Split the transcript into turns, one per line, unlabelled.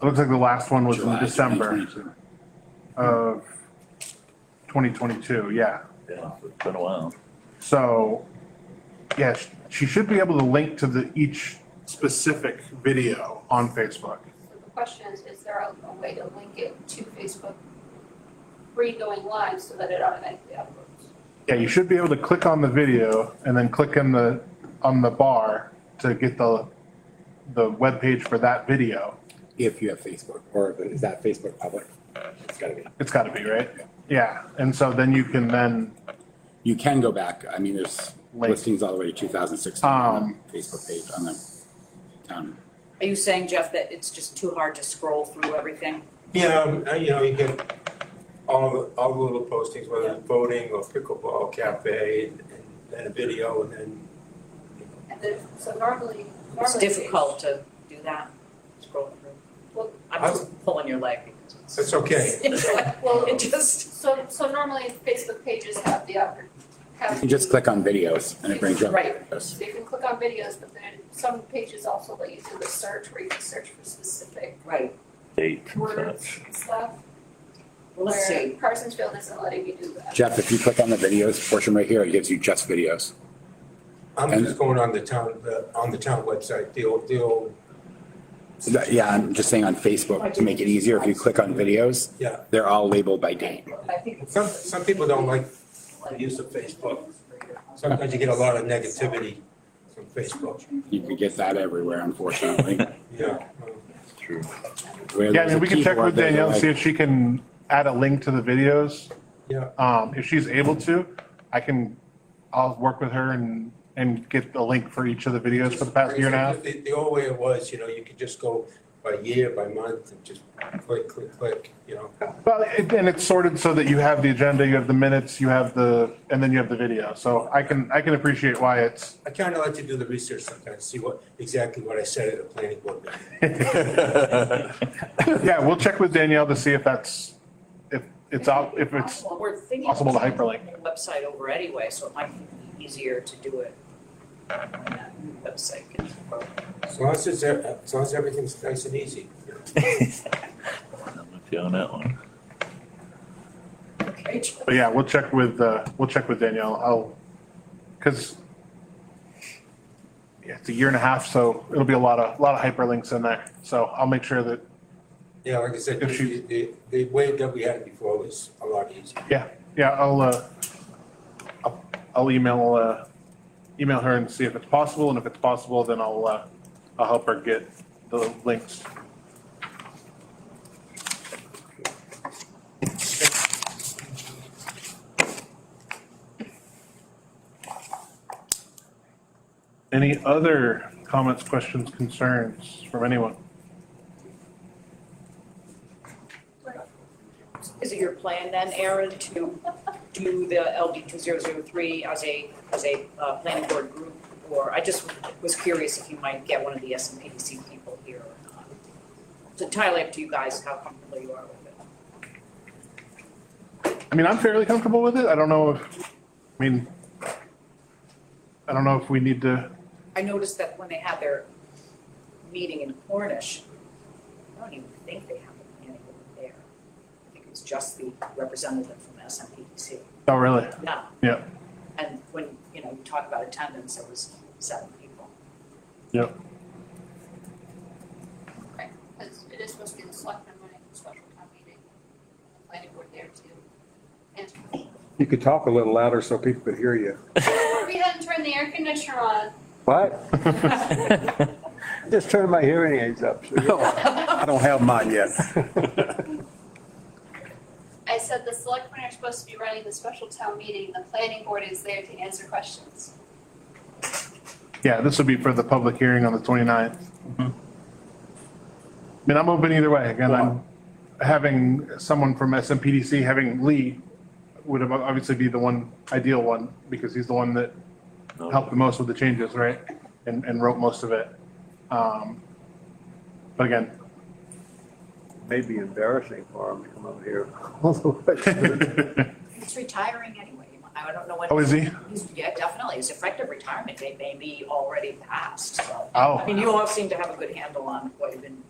It looks like the last one was in
July
December
2022.
of twenty twenty-two, yeah.
Yeah, it's been a while.
So, yeah, sh- she should be able to link to the, each specific video on Facebook.
The question is, is there a, a way to link it to Facebook pre-going live so that it automatically uploads?
Yeah, you should be able to click on the video and then click on the, on the bar to get the, the webpage for that video.
If you have Facebook, or if- is that Facebook public? It's gotta be.
It's gotta be, right? Yeah, and so then you can then,
You can go back, I mean, there's
Link.
listings all the way to two thousand sixteen on
Um,
the Facebook page on the town.
Are you saying, Jeff, that it's just too hard to scroll through everything?
Yeah, um, uh, you know, you get all, the- all the little postings, whether it's voting or pickleball cafe, and then a video, and then, you know,
And then, so normally, normally.
It's difficult to do that, scroll
Well-
through. I'm just pulling your leg because
that's okay.
it's like,
Well,
it just,
so, so normally Facebook pages have the, oppor-
You
have.
can just click on videos and it brings you up.
Right.
Videos.
So you can click on videos, but then some pages also let you do the search where you can search for specific
right,
Date and
words
such.
and stuff.
well, let's
Where
see.
Parsonsfield isn't letting you do that.
Jeff, if you click on the videos portion right here, it gives you just videos.
I'm just going on the town, the- on the town website, the old, the old,
So that- yeah, I'm just saying on Facebook, to make it easier, if you click on videos,
yeah.
they're all labeled by date.
I think it's-
Some, some people don't like the use of Facebook. Sometimes you get a lot of negativity from Facebook,
You can get that everywhere, unfortunately.
yeah. um,
It's true.
Where
yeah, I
there's a
mean, we can check
keyboard,
with
there's a
Danielle, and
like-
see if she can add a link to the videos.
Yeah,
Um, if she's able to, I can, I'll work with her and, and get the link for each of the videos for the past year and a half.
The, the old way it was, you know, you could just go by year, by month, and just click, click, click, you know.
Well, it- and it's sorted so that you have the agenda, you have the minutes, you have the, and then you have the video. So I can, I can appreciate why it's,
I kind of like to do the research sometimes, see what, exactly what I said at a planning board meeting.
yeah, we'll check with Danielle to see if that's, if it's out, if it's,
Well, we're thinking.
possible to
of
hyperlink.
the Website over anyway, so it might be easier to do it. on that Website.
As long as it's, as long as everything's nice and easy, you know.
I'm with you on that one.
Okay.
but yeah, we'll check with, uh, we'll check with Danielle. I'll, cause yeah, it's a year and a half, so it'll be a lot of, a lot of hyperlinks in there. So I'll make sure that,
Yeah, like I said,
If
the,
you-
the, the way that we had it before was a lot easier.
yeah, yeah, I'll, uh, I'll- I'll email, uh, email her and see if it's possible. And if it's possible, then I'll, uh, I'll help her get the links. Any other comments, questions, concerns from anyone?
Is it your plan then, Aaron, to do the LD two zero zero three as a, as a uh, planning board group? Or I just was curious if you might get one of the S and P D C people here or not. It's entirely up to you guys how comfortable you are with it.
I mean, I'm fairly comfortable with it. I don't know if, I mean, I don't know if we need to,
I noticed that when they had their meeting in Cornish, I don't even think they have a planning board there. I think it's just the representative from S and P D C.
oh, really?
Yeah.
Yeah.
And when, you know, you talk about attendance, it was seven people.
Because it is supposed to be the selectmen running the special town meeting, and the planning board there too. And
You could talk a little louder so people could hear you.
we hadn't turned the air conditioner on.
What? Just turned my hearing aids up.
I don't have mine yet.
I said the selectmen are supposed to be running the special town meeting, the planning board is there to answer questions.
Yeah, this will be for the public hearing on the 29th. I mean, I'm open either way. Again, I'm having someone from SMPDC, having Lee would have obviously be the one, ideal one, because he's the one that
No,
helped the most with the changes, right? And, and wrote most of it. Um, But again,
May be embarrassing for him to come over here. all the way.
He's retiring anyway. I don't know when.
oh, is he?
He's, yeah, definitely. His effective retirement date may be already passed, so.
Oh.
I mean, you all seem to have a good handle on what you've been